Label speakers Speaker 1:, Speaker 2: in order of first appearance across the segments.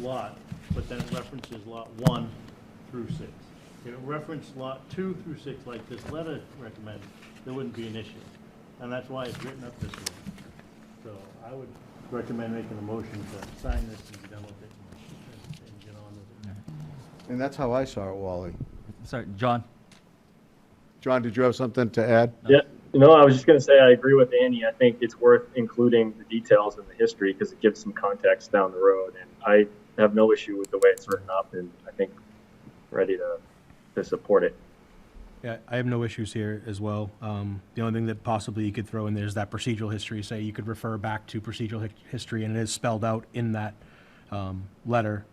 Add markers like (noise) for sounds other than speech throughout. Speaker 1: lot, but then it references lot one through six. If it referenced lot two through six like this letter recommends, there wouldn't be an issue. And that's why it's written up this way. So I would recommend making a motion to sign this and be done with it and- and get on with it.
Speaker 2: And that's how I saw it, Wally.
Speaker 3: Sorry, John.
Speaker 2: John, did you have something to add?
Speaker 4: Yeah, no, I was just going to say I agree with Annie. I think it's worth including the details and the history because it gives some context down the road. And I have no issue with the way it's written up, and I think ready to to support it.
Speaker 5: Yeah, I have no issues here as well. Um, The only thing that possibly you could throw in there is that procedural history, say you could refer back to procedural hic- history, and it is spelled out in that um, letter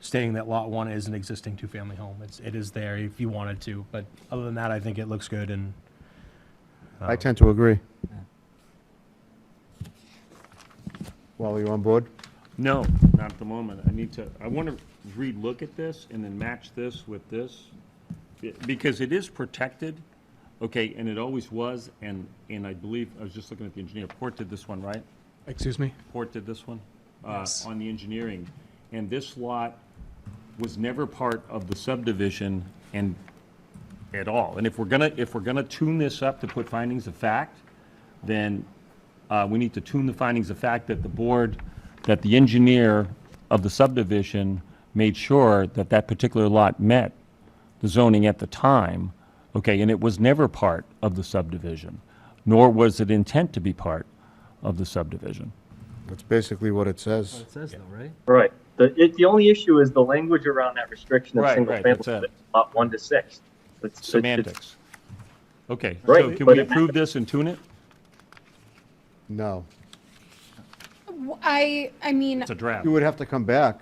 Speaker 5: stating that Lot 1 is an existing two-family home. It's, it is there if you wanted to, but other than that, I think it looks good, and
Speaker 2: I tend to agree. Wally, you on board?
Speaker 6: No, not at the moment. I need to, I want to relook at this and then match this with this. Be- Because it is protected, okay, and it always was, and, and I believe, I was just looking at the engineer, Port did this one, right?
Speaker 5: Excuse me?
Speaker 6: Port did this one? uh,
Speaker 5: Yes.
Speaker 6: On the engineering. And this lot was never part of the subdivision and, at all. And if we're gonna, if we're gonna tune this up to put findings of fact, then uh, we need to tune the findings of fact that the board, that the engineer of the subdivision made sure that that particular lot met the zoning at the time, okay, and it was never part of the subdivision, nor was it intent to be part of the subdivision.
Speaker 2: That's basically what it says.
Speaker 3: says though, right?
Speaker 4: Right. The it, the only issue is the language around that restriction of
Speaker 6: Right,
Speaker 4: single
Speaker 6: right, that's
Speaker 4: family
Speaker 6: it.
Speaker 4: lot one to six. It's, it's-
Speaker 6: Semantics. Okay, so
Speaker 4: Right,
Speaker 6: can
Speaker 4: but
Speaker 6: we
Speaker 4: it-
Speaker 6: approve this and tune it?
Speaker 2: No.
Speaker 7: W- I, I mean,
Speaker 6: It's a draft.
Speaker 2: You would have to come back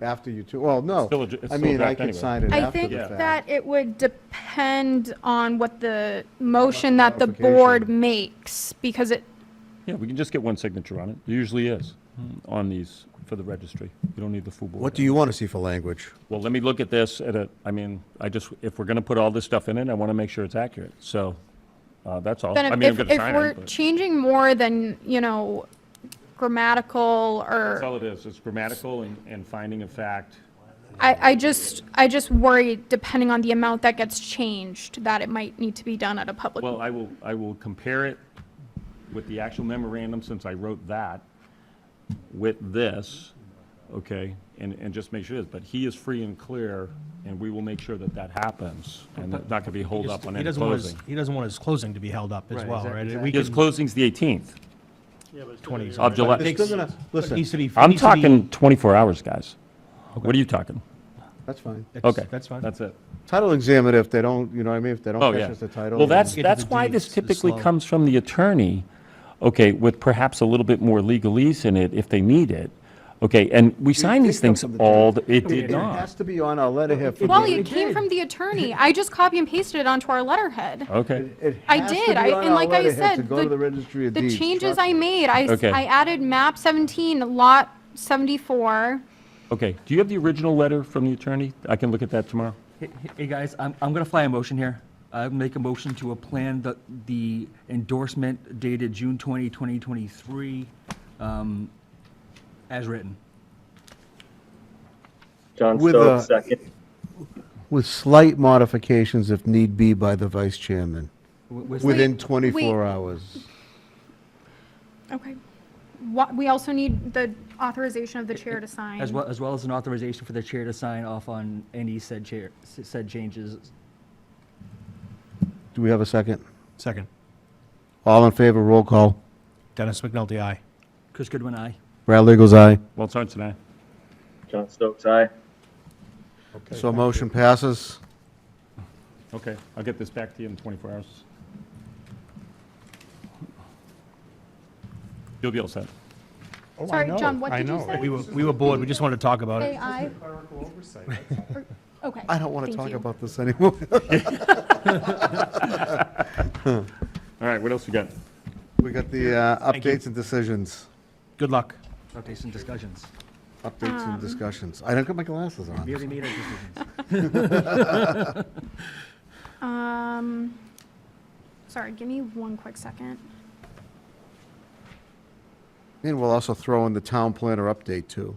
Speaker 2: after you two, well, no.
Speaker 6: still a dr- it's
Speaker 2: I
Speaker 6: still a
Speaker 2: mean, I
Speaker 6: draft
Speaker 2: can
Speaker 6: anyway.
Speaker 2: sign it
Speaker 7: I
Speaker 2: after
Speaker 7: think
Speaker 2: the
Speaker 7: that
Speaker 2: fact.
Speaker 7: it would depend on what the motion that the board
Speaker 2: Modification.
Speaker 7: makes, because it,
Speaker 6: Yeah, we can just get one signature on it. There usually is on these for the registry. You don't need the full board.
Speaker 2: What do you want to see for language?
Speaker 6: Well, let me look at this at a, I mean, I just, if we're going to put all this stuff in it, I want to make sure it's accurate. So uh, that's all.
Speaker 7: then
Speaker 6: I mean, I'm
Speaker 7: if,
Speaker 6: going
Speaker 7: if
Speaker 6: to
Speaker 7: if
Speaker 6: sign
Speaker 7: we're
Speaker 6: it. but-
Speaker 7: changing more than, you know, grammatical
Speaker 6: That's
Speaker 7: or,
Speaker 6: all it is. It's grammatical and, and finding of fact.
Speaker 7: I, I just, I just worry, depending on the amount that gets changed, that it might need to be done at a public.
Speaker 6: Well, I will, I will compare it with the actual memorandum, since I wrote that, with this, okay? And, and just make sure, this. but he is free and clear, and we will make sure that that happens, and that's not gonna be hold up on
Speaker 5: He
Speaker 6: any
Speaker 5: doesn't want his-
Speaker 6: closing.
Speaker 5: He doesn't want his closing to be held up as well, right? We
Speaker 6: His
Speaker 5: can-
Speaker 6: closing's the 18th
Speaker 1: Yeah, but it's still
Speaker 5: Twenty.
Speaker 1: here.
Speaker 6: of
Speaker 5: But
Speaker 6: July.
Speaker 5: it
Speaker 2: It's still gonna,
Speaker 5: but it
Speaker 2: listen,
Speaker 5: needs to be- it
Speaker 6: I'm
Speaker 5: needs to be-
Speaker 6: talking 24 hours, guys. What are you talking?
Speaker 2: that's fine.
Speaker 5: That's-
Speaker 6: Okay.
Speaker 5: That's fine.
Speaker 6: That's it.
Speaker 2: Title examiner, if they don't, you know what I mean, if they
Speaker 6: Oh,
Speaker 2: don't catch
Speaker 6: yeah.
Speaker 2: us the title.
Speaker 6: Well, that's,
Speaker 2: then-
Speaker 5: Get to the
Speaker 6: that's why this
Speaker 5: deeds, it's
Speaker 6: typically
Speaker 5: slow.
Speaker 6: comes from the attorney, okay, with perhaps a little bit more legalese in it if they need it. Okay, and we sign
Speaker 2: did
Speaker 6: these
Speaker 2: come
Speaker 6: things
Speaker 2: from the
Speaker 6: all, the- it
Speaker 2: It
Speaker 6: did not.
Speaker 2: has to be on our letterhead for
Speaker 7: Wally,
Speaker 2: the-
Speaker 7: it came (laughs) from the attorney. I just copy and pasted it onto our letterhead.
Speaker 6: Okay,
Speaker 2: It
Speaker 7: I
Speaker 2: has to
Speaker 7: did,
Speaker 2: be
Speaker 7: I-
Speaker 2: on
Speaker 7: and
Speaker 2: our
Speaker 7: like I
Speaker 2: letterhead
Speaker 7: said,
Speaker 2: To go
Speaker 7: the-
Speaker 2: to the registry of
Speaker 7: The
Speaker 2: deeds.
Speaker 7: changes
Speaker 2: Trust
Speaker 7: I
Speaker 2: me.
Speaker 7: made, I, s-
Speaker 6: Okay.
Speaker 7: I added map 17, lot 74.
Speaker 6: okay. Do you have the original letter from the attorney? I can look at that tomorrow.
Speaker 3: Hey, hey, guys, I'm, I'm gonna fly a motion here. I make a motion to a plan that the endorsement dated June 20, 2023, um, as written.
Speaker 4: John
Speaker 2: With
Speaker 4: Stowe,
Speaker 2: a-
Speaker 4: second.
Speaker 2: With slight modifications if need be by the vice chairman,
Speaker 3: Wi- with-
Speaker 2: within
Speaker 7: wait.
Speaker 2: 24 hours.
Speaker 7: Okay. What, we also need the authorization of the chair to sign.
Speaker 3: As well, as well as an authorization for the chair to sign off on any said chair, said changes.
Speaker 2: Do we have a second?
Speaker 5: Second.
Speaker 2: All in favor, roll call.
Speaker 5: Dennis McNulty, aye.
Speaker 3: Chris Goodwin, aye.
Speaker 2: Brad Legals, aye.
Speaker 6: Well, it's on tonight.
Speaker 4: John Stokes, aye.
Speaker 2: So motion passes.
Speaker 6: Okay, I'll get this back to you in 24 hours. You'll be all set.
Speaker 7: Sorry, John, what
Speaker 8: Oh, I
Speaker 7: did you
Speaker 8: know.
Speaker 7: say?
Speaker 5: We were, we were bored, we just wanted to talk about it.
Speaker 7: Say aye.
Speaker 8: Clerical oversight, that's all.
Speaker 7: Okay.
Speaker 2: I don't want to
Speaker 7: thank
Speaker 2: talk
Speaker 7: you.
Speaker 2: about this anymore. (laughs)
Speaker 6: All right, what else we got?
Speaker 2: We got the uh,
Speaker 5: Thank you.
Speaker 2: updates and decisions,
Speaker 5: Good luck.
Speaker 3: Updates and discussions.
Speaker 2: updates and discussions. I don't got my glasses
Speaker 3: We
Speaker 2: on.
Speaker 3: already made our decisions.
Speaker 7: Um, sorry, give me one quick second.
Speaker 2: And we'll also throw in the town planner update, too.